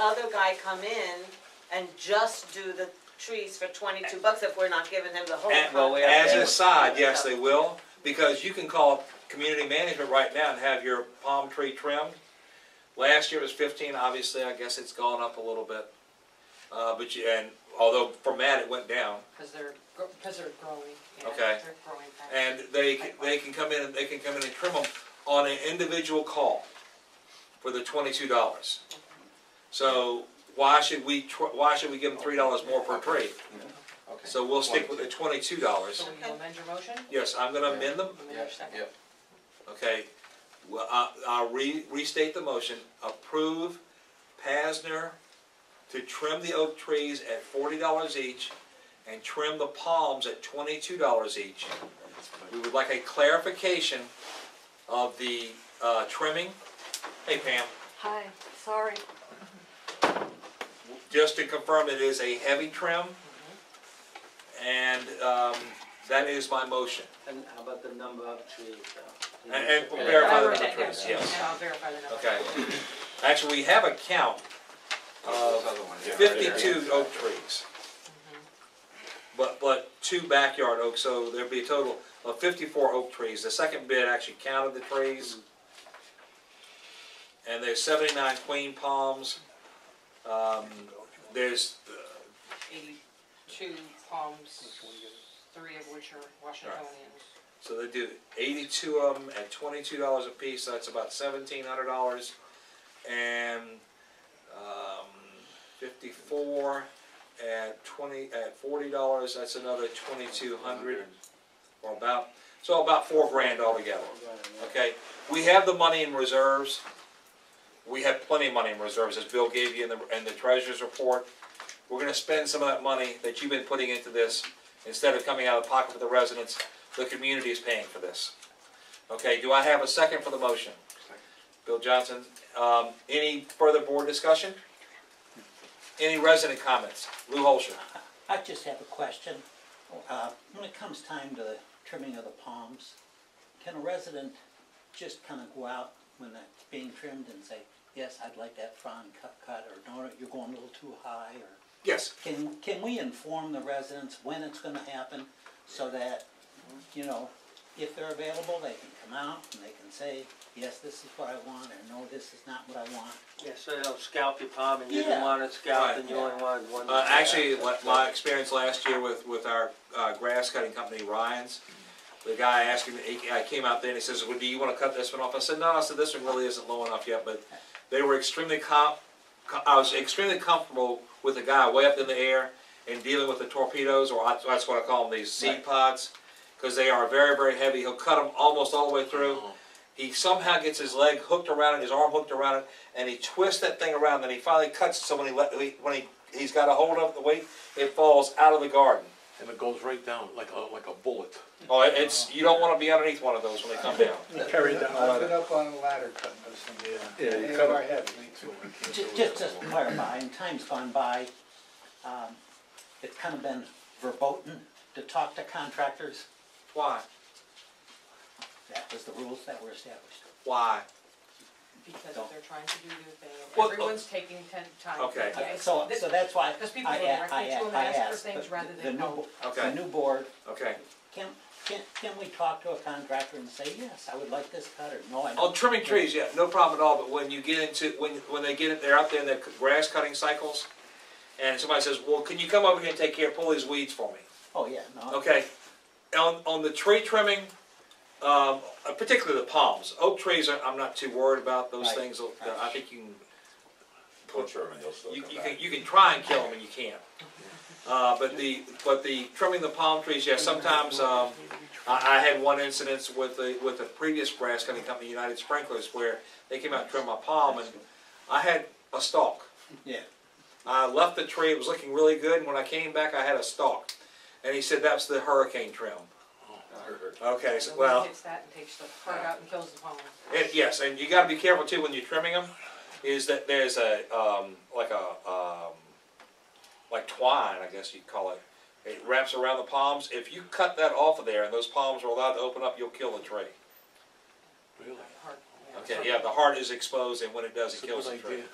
other guy come in and just do the trees for twenty-two bucks if we're not giving him the whole And- well, we contract? As Yeah. an aside, yes, they will, because you can call community management right now and have your palm tree trimmed. Last year it was fifteen, obviously, I guess it's gone up a little bit. Uh, but you, and although for Matt it went down, Because they're, because they're growing. yeah, Okay. They're growing fast. and they, c- they can come in, and they can come in and trim them on an individual call for the twenty-two dollars. So why should we, tr- why should we give them three dollars more per tree? Okay. So we'll stick with the twenty-two dollars. So will you amend your motion? Yes, I'm gonna amend them Amend Yeah, your second? yeah. Okay, well, I, I'll re, restate the motion, approve Pasner to trim the oak trees at forty dollars each and trim the palms at twenty-two dollars each. We would like a clarification of the, uh, trimming. Hey Pam, Hi, sorry. just to confirm, it is a heavy trim. Mm-hmm. And, um, that is my motion. And how about the number uh, of trees though? And, and Okay. verify I the wrote number that of down, trees, yeah, yes. And I'll verify the number. Okay. Actually, we have a count Oh, of fifty-two oak trees. But, but two backyard oaks, so there'd be a total of fifty-four oak trees. The second bid actually counted the trees. And there's seventy-nine queen palms. Um, there's, uh, Eighty-two palms, three of which are Washingtonians. so they do eighty-two of them at twenty-two dollars a piece, so that's about seventeen hundred dollars. And, um, fifty-four at twenty, at forty dollars, that's another twenty-two hundred. or about, so about four grand altogether, okay? We have the money in reserves, we have plenty of money in reserves, as Bill gave you in the, in the treasurer's report. We're gonna spend some of that money that you've been putting into this, instead of coming out of the pocket of the residents, the community is paying for this. Okay, do I have a second for the motion? Bill Johnson, um, any further board discussion? Any resident comments? Lou Holscher? I just have a question. Uh, When it comes time to the trimming of the palms, can a resident just kind of go out when that's being trimmed and say, yes, I'd like that frond cut, cut, or no, you're going a little too high, or? Yes. Can, can we inform the residents when it's gonna happen, so that, you know, if they're available, they can come out and they can say, yes, this is what I want, or no, this is not what I want? Yeah, so they'll scalp your palm and you don't Yeah. want it scalped Right. and you only want one. Uh, actually, la- my experience last year with, with our uh, grass cutting company, Ryan's, the guy asked me, he- I came out there and he says, well, do you wanna cut this one off? I said, no, I said, this one really isn't low enough yet, but they were extremely com, co- I was extremely comfortable with a guy way up in the air and dealing with the torpedoes, or I- that's what I call them, these seed Right. pods, cause they are very, very heavy. He'll cut them almost all the way through. He somehow gets his leg hooked around it, his arm hooked around it, and he twists that thing around, and he finally cuts it, so when he, let, he- when he, he's got a hold of the weight, it falls out of the garden. And it goes right down like a, like a bullet. Oh, it- it's, you don't wanna be underneath one of those when they come down. Carry down. I've been up on a ladder cutting those things. Yeah. They are heavy. Ju- Just to clarify, in times gone by, um, it's kind of been verboten to talk to contractors. Why? That was the rules that were established. Why? Because Don't. they're trying to do their thing, Well, uh, everyone's taking ten time. Okay. Yeah, it's- Uh, So, this- so that's why Because people I, go a- I, directly to a- them I and ask for asked, things rather the- the than new, help. Okay. the new board, Okay. can, can, can we talk to a contractor and say, yes, I would like this cut, or no, I don't? Oh, trimming trees, yeah, no problem at all, but when you get into, when, when they get, it, they're out there in their grass cutting cycles, and somebody says, well, can you come over here and take care, pull these weeds for me? Oh, yeah, no. Okay, on, on the tree trimming, um, uh, particularly the palms, oak trees, I- I'm not too worried about those Right. things, uh, I think you can, Butcher them and they'll still you, come you can, back. you can try and kill them and you can't. Uh, but the, but the trimming the palm trees, yeah, sometimes, um, I, I had one incident with the, with the previous grass cutting company, United Sprinklers, where they came out and trimmed my palm and I had a stalk. Yeah, I left the tree, it was looking really good, and when I came back, I had a stalk. And he said, that's the hurricane trim. Okay, so, The well, wind hits that and takes the heart out and kills the palm. it, yes, and you gotta be careful too when you're trimming them, is that there's a, um, like a, um, like twine, I guess you'd call it. It wraps around the palms. If you cut that off of there and those palms are allowed to open up, you'll kill the tree. Really? Heart, yeah. Okay, yeah, the heart is exposed and when it does, it It's a kills good the tree. idea.